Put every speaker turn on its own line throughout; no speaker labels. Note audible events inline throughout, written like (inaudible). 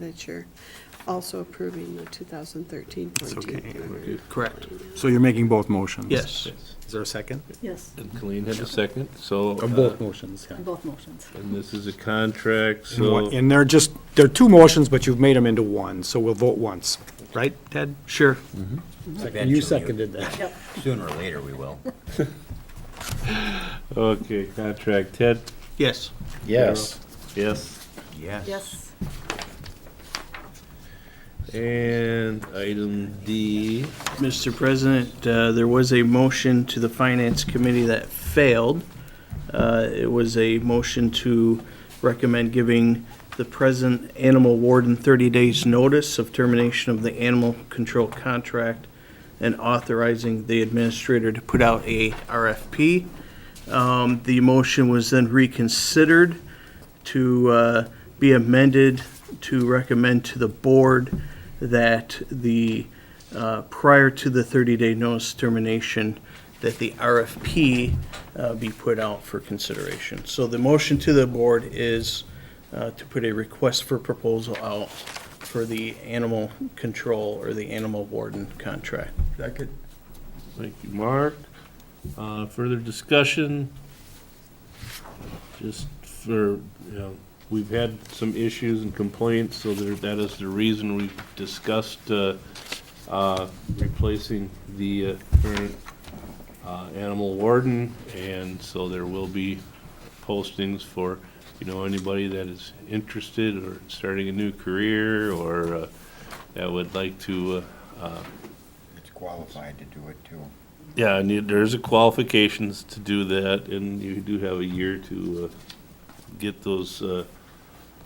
that you're also approving the 2013
It's okay.
Correct.
So you're making both motions?
Yes.
Is there a second?
Yes,
And Colleen had a second, so.
Or
uh,
both motions, yeah.
on both motions.
And this is a contract,
And
so.
one- And they're just, they're two motions, but you've made them into one, so we'll vote once, right, Ted?
Sure.
And you seconded that.
Sooner or later, we will.
Okay, contract, Ted?
Yes.
Yes. (laughs) Yes.
Yes.
Yes,
And item D,
Mr. President, uh, there was a motion to the Finance Committee that failed. Uh, It was a motion to recommend giving the present animal warden 30 days' notice of termination of the animal control contract and authorizing the administrator to put out a RFP. Um, The motion was then reconsidered to uh, be amended to recommend to the board that the, uh, prior to the 30-day notice termination, that the RFP uh, be put out for consideration. So the motion to the board is uh, to put a request for proposal out for the animal control or the animal warden contract.
thank you, Mark. Uh, Further discussion? Just for, you know, we've had some issues and complaints, so there- that is the reason we discussed uh, uh, replacing the uh, current uh, animal warden, and so there will be postings for, you know, anybody that is interested or starting a new career or uh, that would like to uh,
It's qualified to do it, too.
Yeah, and you- there's a qualifications to do that, and you do have a year to uh, get those uh,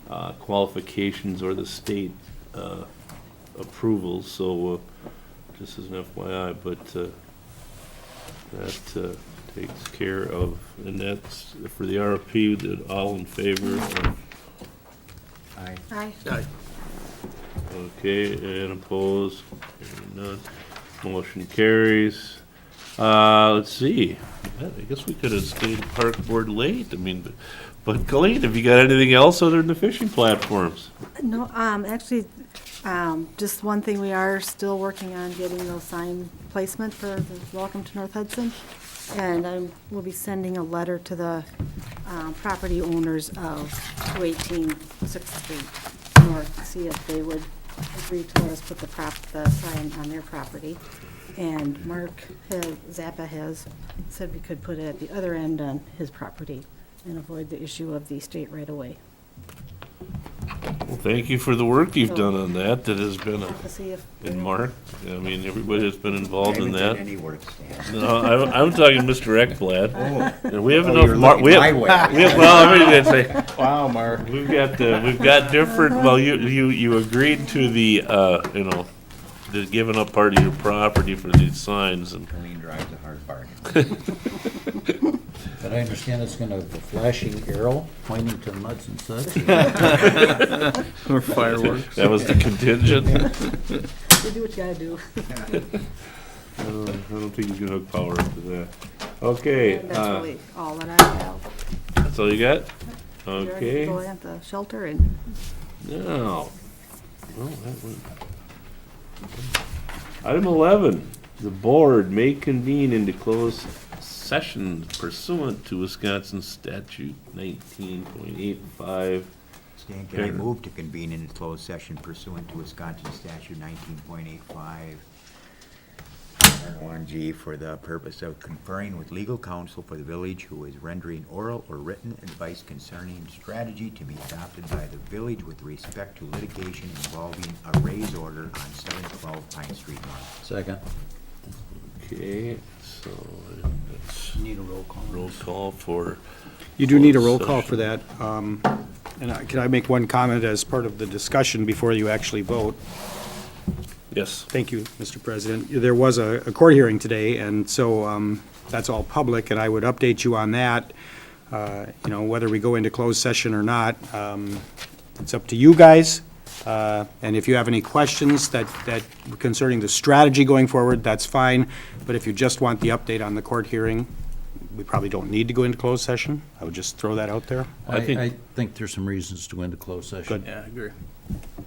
uh, qualifications or the state uh, approvals, so uh, just as an FYI, but uh, that uh, takes care of, and that's for the RFP, that all in favor,
Aye.
aye.
okay, and opposed, Hearing none, motion carries. Uh, let's see. I guess we could have stayed park board late. I mean, but, but Colleen, have you got anything else other than the fishing platforms?
No, um, actually, um, just one thing, we are still working on getting those sign placement for the Welcome to North Hudson. And I will be sending a letter to the, um, property owners of 218 Sixth Street North, see if they would agree to let us put the prop, the sign on their property. And Mark has- Zappa has said we could put it at the other end on his property and avoid the issue of the state right-of-way.
Well, thank you for the work you've done on that. That has been, a-
To see if.
and Mark, I mean, everybody that's been involved in
Haven't done
that.
any work, Stan.
No, I'm, I'm talking Mr. Ekblad. And we have
Oh,
enough,
you're
Mar-
looking
we
my
have,
way.
we have, well, I'm going to say, (laughs)
Wow, Mark.
We've got the, we've got different, well, you, you, you agreed to the, uh, you know, the giving up part of your property for these signs and,
Colleen drives a hard bargain.
But I understand it's gonna have a flashing arrow pointing to muds and suds.
Or fireworks.
that was the contingent. I
You do what you gotta do.
don't (laughs) I don't think you can hook power up to that. Okay,
That's
uh,
really all that I have.
that's all you got?
We already Go
Okay,
at the shelter and
now. well, that went- Item eleven, the board may convene into closed session pursuant to Wisconsin statute nineteen point eight five
Stan, can I
Okay.
move to convene in closed session pursuant to Wisconsin statute nineteen point eight five, one G, for the purpose of conferring with legal counsel for the village who is rendering oral or written advice concerning strategy to be adopted by the village with respect to litigation involving a raise order on seven twelve Pine Street North.
Second.
Okay, so that's
Need a roll call.
roll call for,
You do need a roll call for that. um, And I- can I make one comment as part of the discussion before you actually vote?
yes,
Thank you, Mr. President. There was a a court hearing today, and so um, that's all public, and I would update you on that, uh, you know, whether we go into closed session or not. Um, It's up to you guys, uh, and if you have any questions that that concerning the strategy going forward, that's fine, but if you just want the update on the court hearing, we probably don't need to go into closed session. I would just throw that out there.
I
I,
think-
I think there's some reasons to go into closed session.
Good.
Yeah, I agree.